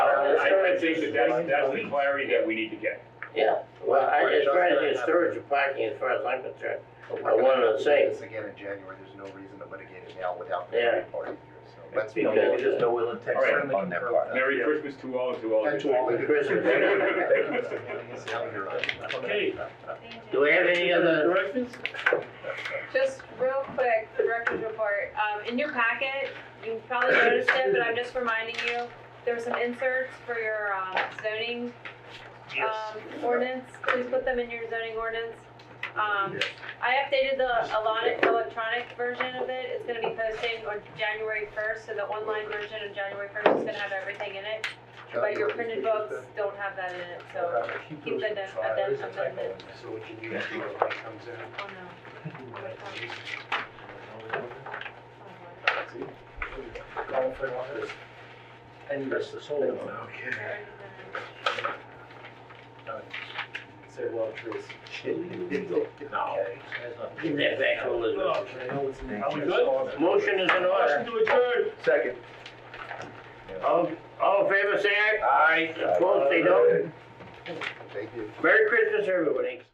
I think that that's, that's the clarity that we need to get. Yeah, well, I, as far as the storage of parking, as far as I'm concerned, But I we're wanted to gonna say- do this again in January, there's no reason to litigate it now without the Yeah. third party here, so let's be. Because, Maybe there's uh, no will and All right. certainly On their concur part. with that. Merry Christmas to all and to all. of you. And to all of you. Christmas. Okay, do we have any other, directions? Just real quick, the director's report, um, in your packet, you probably noticed it, but I'm just reminding you, there's some inserts for your, um, zoning, um, ordinance, please put them in your zoning ordinance. Um, I updated the electronic, electronic version of it, it's gonna be posted on January first, so the online version of January first is gonna have everything in it. But your printed books don't have that in it, so, Uh, keep it as- as an amendment. So what you do is you know, it comes in. oh no. What time? And that's the solar. Oh, Okay. no. Say well, trees. No. give that back to Elizabeth. Are we good? Motion is in order. Motion to adjourn. Second. All, all in favor, say aye. Aye. Opposed, say no. Thank you. Merry Christmas, everybody.